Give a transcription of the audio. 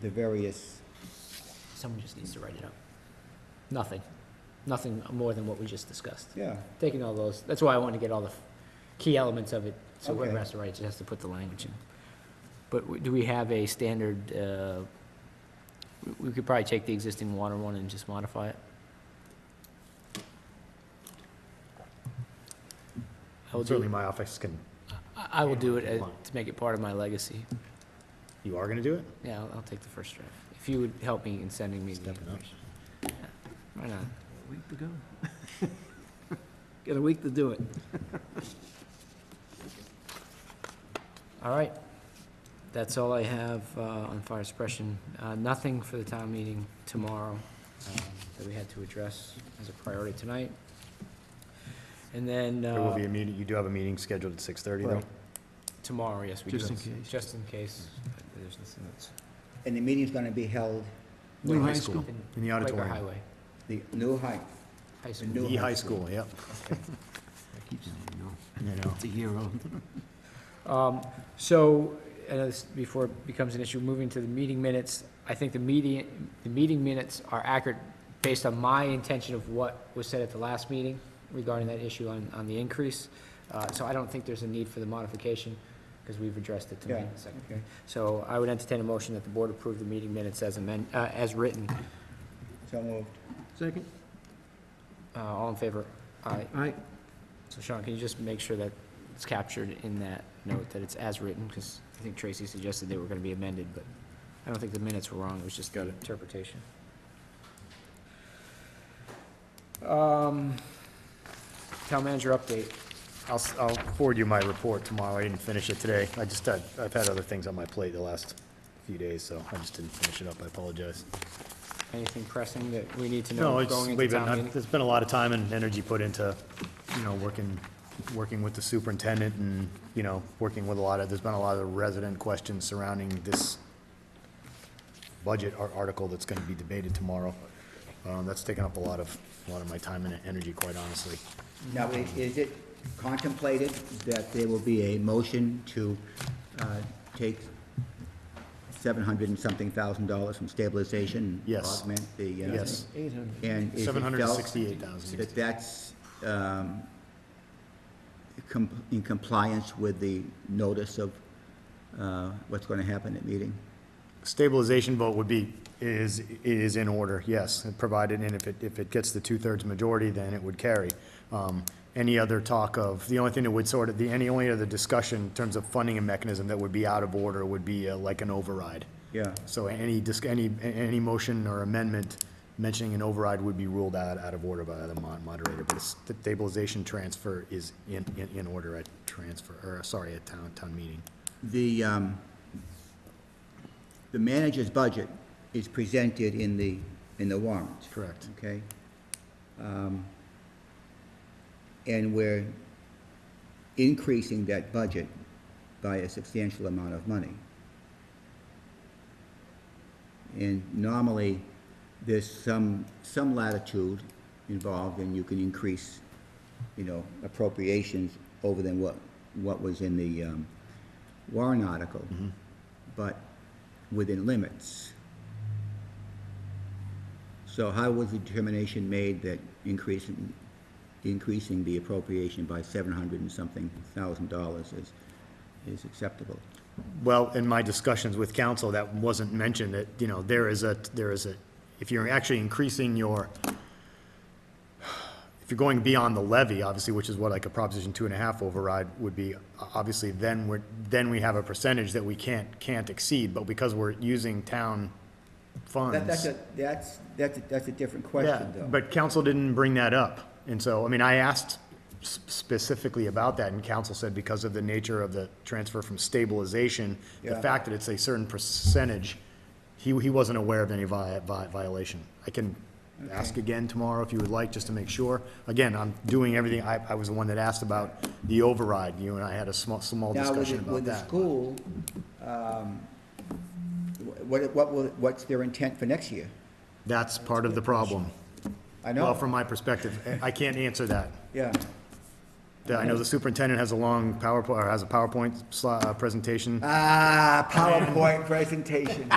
the various, Someone just needs to write it up. Nothing, nothing more than what we just discussed. yeah, Taking all those, that's why I want to get all the key elements of it, so whoever Okay. has to write it just has to put the language in. But w- do we have a standard, uh, we- we could probably take the existing water one and just modify it? I will do- Certainly my office can, I I will do it If you uh, want. to make it part of my legacy. you are gonna do it? Yeah, I'll, I'll take the first draft. If you would help me in sending me the Stepping up. information. Yeah, Why not? A week to go. Got a week to do it. All right. That's all I have uh, on fire suppression. Uh, Nothing for the town meeting tomorrow um, that we had to address as a priority tonight. And then There will uh, be a meeting, you do have a meeting scheduled at six thirty though? Right. tomorrow, yes, we do. Just in case. Just in case. uh, There's nothing that's. and the meeting's gonna be held New High high school. school. in In the Quaker auditorium. Highway, the new height. high The school. new- E High School, yep, I keep saying no. you know. It's a year old. Um, So, and this- before it becomes an issue, moving to the meeting minutes, I think the meeting, the meeting minutes are accurate based on my intention of what was said at the last meeting regarding that issue on, on the increase. Uh, So I don't think there's a need for the modification, because we've addressed it Yeah, tonight. So- okay. So I would entertain a motion that the board approve the meeting minutes as amend, uh, as written. So moved. Second? Uh, All in favor? Aye. All right. So Sean, can you just make sure that it's captured in that note, that it's as written? Because I think Tracy suggested they were going to be amended, but I don't think the minutes were wrong, it was just the interpretation. Um, Town manager update. I'll, s- I'll forward you my report tomorrow, I didn't finish it today, I just had, I've had other things on my plate the last few days, so I just didn't finish it up, I apologize. Anything pressing that we need to No, know it's, going into we've town been, meeting? there's been a lot of time and energy put into, you know, working, working with the superintendent and, you know, working with a lot of, there's been a lot of resident questions surrounding this budget ar- article that's gonna be debated tomorrow. Um, that's taken up a lot of, a lot of my time and energy, quite honestly. Now, i- is it contemplated that there will be a motion to uh, take seven hundred and something thousand dollars from stabilization? and Yes. Augment the. uh, Yes, Eight hundred. And is it seven felt hundred and sixty-eight thousand. that that's um, com- in compliance with the notice of uh, what's gonna happen at meeting? Stabilization vote would be, is, is in order, yes, and provided, and if it, if it gets the two-thirds majority, then it would carry. Um, Any other talk of, the only thing that would sort of, the, any only other discussion in terms of funding and mechanism that would be out of order would be uh, like an override. Yeah. So any, dis- any, a- any motion or amendment mentioning an override would be ruled out, out of order by the mon- moderator, but it's- the stabilization transfer is in, in, in order at transfer, or, sorry, at town, town meeting. The, um, the manager's budget is presented in the, in the warrant. Correct. Okay? Um, And we're increasing that budget by a substantial amount of money. And normally, there's some, some latitude involved, and you can increase, you know, appropriations over than what, what was in the um, warrant article, Mm-hmm. but within limits. So how was the determination made that increasing, increasing the appropriation by seven hundred and something thousand dollars is, is acceptable? Well, in my discussions with council, that wasn't mentioned, that, you know, there is a, there is a, if you're actually increasing your, if you're going beyond the levy, obviously, which is what like a Proposition two and a half override would be, o- obviously, then we're, then we have a percentage that we can't, can't exceed, but because we're using town funds. That, that's a, that's, that's, a- that's a different Yeah, question, though. But council didn't bring that up, and so, I mean, I asked s- specifically about that, and council said because of the nature of the transfer from stabilization, the Yeah. fact that it's a certain percentage, he, he wasn't aware of any vi- vi- violation. I can ask again tomorrow if you would like, just to make sure. Again, I'm doing everything, I, I was the one that asked about the override, you and I had a small, small Now, with discussion the, about with the that. school, um, wh- what, what, will- what's their intent for next year? That's part of the problem. I Well, know, from my perspective, I- I can't answer that. yeah, Yeah, I know the superintendent has a long PowerPoint, or has a PowerPoint sli- uh, presentation. ah, PowerPoint presentation.